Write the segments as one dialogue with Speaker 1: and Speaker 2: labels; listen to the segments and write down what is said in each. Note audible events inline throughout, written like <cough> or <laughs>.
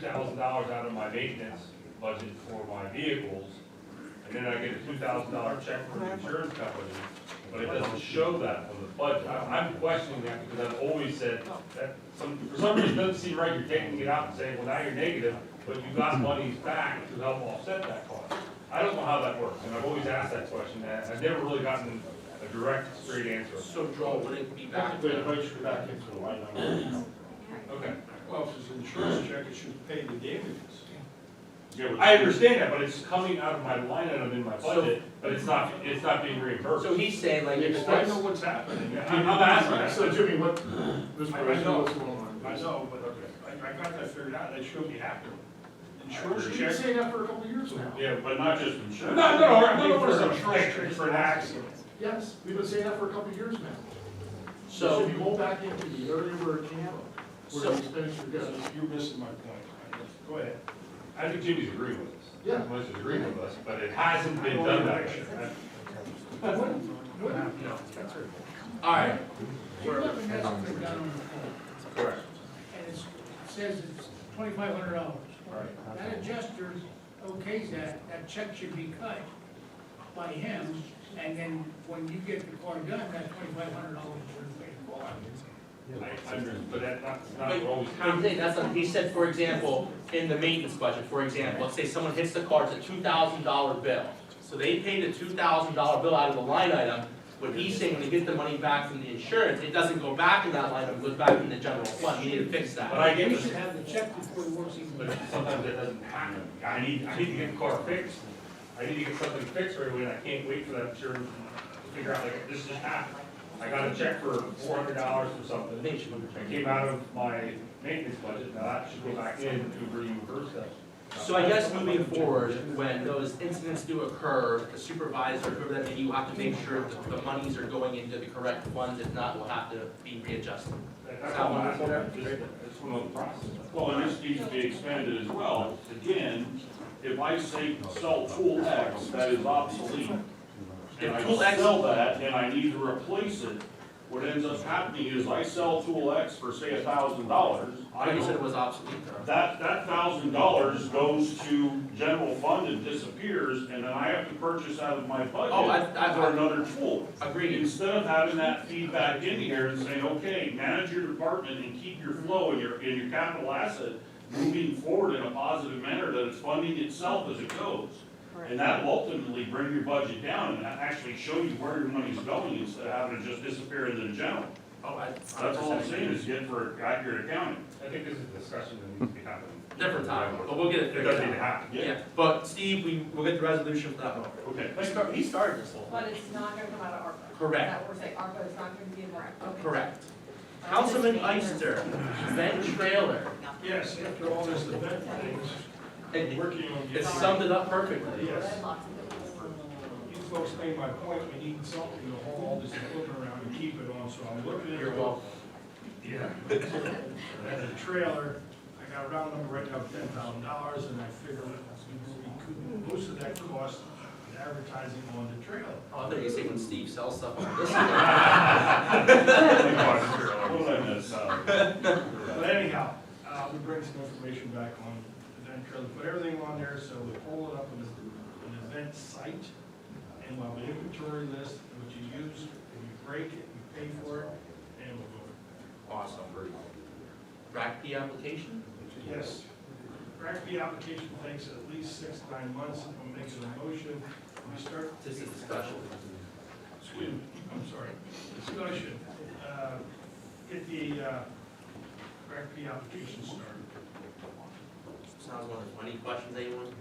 Speaker 1: thousand dollars out of my maintenance budget for my vehicles, and then I get a two thousand dollar check from the insurance company, but it doesn't show that on the budget. I- I'm questioning that because I've always said that some, for some reason, it doesn't seem right, you're taking it out and saying, well, now you're negative, but you got monies back to help offset that cost. I don't know how that works, and I've always asked that question, and I've never really gotten a direct, straight answer.
Speaker 2: So Joel, would it be back
Speaker 3: Wait,
Speaker 2: to,
Speaker 3: wait, go back into the line item.
Speaker 1: Okay.
Speaker 4: Well, if it's an insurance check, it should pay the damages.
Speaker 3: Yeah,
Speaker 1: I understand that, but it's coming out of my line item in my budget, but it's not, it's not being reimbursed.
Speaker 2: so he's saying like,
Speaker 4: I
Speaker 2: if
Speaker 4: know
Speaker 2: it's,
Speaker 4: what's happening.
Speaker 1: Yeah, I'm, I'm asking
Speaker 3: but-
Speaker 1: that.
Speaker 3: So Jimmy, what, Mr.
Speaker 4: I
Speaker 3: Perez,
Speaker 4: know.
Speaker 3: what's going on?
Speaker 4: I know, but I, I got that figured out, that should be happening. Insurance
Speaker 3: We've been
Speaker 4: check.
Speaker 3: saying that for a couple of years now.
Speaker 1: Yeah,
Speaker 3: but not just insurance.
Speaker 1: No, no, no, no, no, no,
Speaker 4: For
Speaker 1: no,
Speaker 4: an
Speaker 1: no.
Speaker 4: insurance for an accident.
Speaker 3: Yes, we've been saying that for a couple of years now.
Speaker 2: so,
Speaker 3: If you roll back into the area where it can, where
Speaker 2: So-
Speaker 3: the expenditure goes.
Speaker 4: You're missing my point. Go ahead.
Speaker 1: I think Jimmy's agreeing with us.
Speaker 3: Yeah.
Speaker 1: Much is agreeing with us, but it hasn't been done that way.
Speaker 2: alright,
Speaker 5: You have an estimate down on the form,
Speaker 1: Correct.
Speaker 5: and it's- it says it's twenty-five hundred dollars. That adjuster okays that, that check should be cut by him, and then when you get the car done, that twenty-five hundred dollars is paid for.
Speaker 1: I understand, but that, that's not
Speaker 2: but,
Speaker 1: what always
Speaker 2: I'm
Speaker 1: happens.
Speaker 2: saying, that's not, he said, for example, in the maintenance budget, for example, let's say someone hits the car, it's a two thousand dollar bill. So they paid a two thousand dollar bill out of the line item, what he's saying, when they get the money back from the insurance, it doesn't go back in that line item, it goes back in the general fund, we need to fix that.
Speaker 1: But I get
Speaker 5: You
Speaker 1: this,
Speaker 5: should have the check before the work's even
Speaker 1: but
Speaker 5: done.
Speaker 1: sometimes that doesn't happen. I need, I need to get the car fixed. I need to get something fixed right away, and I can't wait for that insurance to figure out, like, this just happened. I got a check for four hundred dollars for something.
Speaker 2: I think it should go
Speaker 1: It
Speaker 2: back.
Speaker 1: came out of my maintenance budget, now that should go back in to reimburse that.
Speaker 2: So I guess moving forward, when those incidents do occur, the supervisor, whoever that may, be, you have to make sure that the monies are going into the correct funds, if not, will have to be readjusted.
Speaker 1: That's all I'm asking, just, it's one of the process.
Speaker 6: Well, and this needs to be expanded as well. Again, if I say sell tool X that is obsolete, and
Speaker 2: If tool
Speaker 6: I
Speaker 2: X-
Speaker 6: sell that and I need to replace it, what ends up happening is I sell tool X for say a thousand dollars. I
Speaker 2: I you said
Speaker 6: don't,
Speaker 2: it was obsolete, though.
Speaker 6: that, that thousand dollars goes to general fund and disappears, and then I have to purchase out of my
Speaker 2: Oh, I-
Speaker 6: budget
Speaker 2: I-
Speaker 6: for another tool.
Speaker 2: Agreed.
Speaker 6: Instead of having that feedback in here and saying, okay, manage your department and keep your flow and your, and your capital asset moving forward in a positive manner, that it's funding itself as it goes. And that will ultimately bring your budget down and actually show you where your money's going instead of having it just disappear into the general.
Speaker 2: Oh, I-
Speaker 6: That's all I'm saying is get for accurate accounting.
Speaker 1: I think this is a discussion that needs to be happening.
Speaker 2: Different time, but we'll get it
Speaker 1: It
Speaker 2: figured
Speaker 1: doesn't need to
Speaker 2: out.
Speaker 1: happen.
Speaker 2: Yeah, but Steve, we, we'll get the resolution for that one.
Speaker 6: Okay.
Speaker 2: He start- He started this whole
Speaker 7: But
Speaker 2: thing.
Speaker 7: it's not gonna come out of ARPA.
Speaker 2: Correct.
Speaker 7: Is that what we're saying, ARPA is not gonna be in there? Okay.
Speaker 2: Correct. Councilman <laughs> Ister, Ben Trailer,
Speaker 4: Yes, after all this event thing,
Speaker 2: it,
Speaker 4: working on.
Speaker 2: it summed it up perfectly.
Speaker 4: Yes.
Speaker 7: Lots of different-
Speaker 4: You folks made my point, we need something to hold all this equipment around and keep it on, so I'm looking at.
Speaker 2: You're welcome.
Speaker 4: Yeah. <laughs> And the trailer, I got a round number right now, ten thousand dollars, and I figured we could recoup most of that cost in advertising on the trailer.
Speaker 2: Oh, I thought you said when Steve sells stuff on <laughs> this.
Speaker 6: <laughs> What did I miss?
Speaker 1: <laughs>
Speaker 4: But anyhow, uh, we bring some information back on the event trailer, put everything on there, so we pull it up in an event site. And we'll have an inventory list, what you use, and you break it, you pay for it, and we'll go.
Speaker 2: Awesome. Rack P application?
Speaker 4: Yes. Correct, the application takes at least six, nine months, I'm making a motion, we start
Speaker 2: This is a special.
Speaker 4: Excuse me, I'm sorry, discussion, uh, get the, uh, correct the application started.
Speaker 2: Sounds wonderful. Any questions, anyone?
Speaker 7: For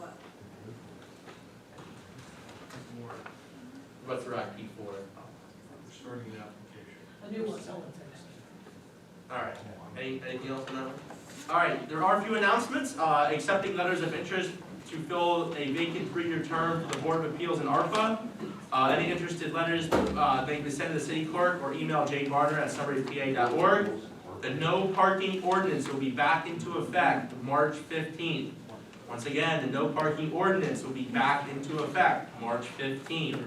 Speaker 7: what?
Speaker 4: More,
Speaker 2: What's Rack P for?
Speaker 4: starting the application.
Speaker 7: A new one, someone
Speaker 2: All right. Any, anything else on that? one? All right, there are a few announcements. Uh, accepting letters of interest to fill a vacant three-year term for the Board of Appeals in ARPA. Uh, any interested letters, uh, they can send to the city clerk or email Jay Barner at summarypa.org. The no parking ordinance will be back into effect March fifteenth. Once again, the no parking ordinance will be back into effect March fifteenth.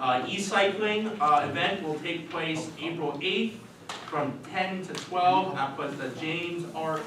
Speaker 2: Uh, e-cycling, uh, event will take place April eighth from ten to twelve up at the James R.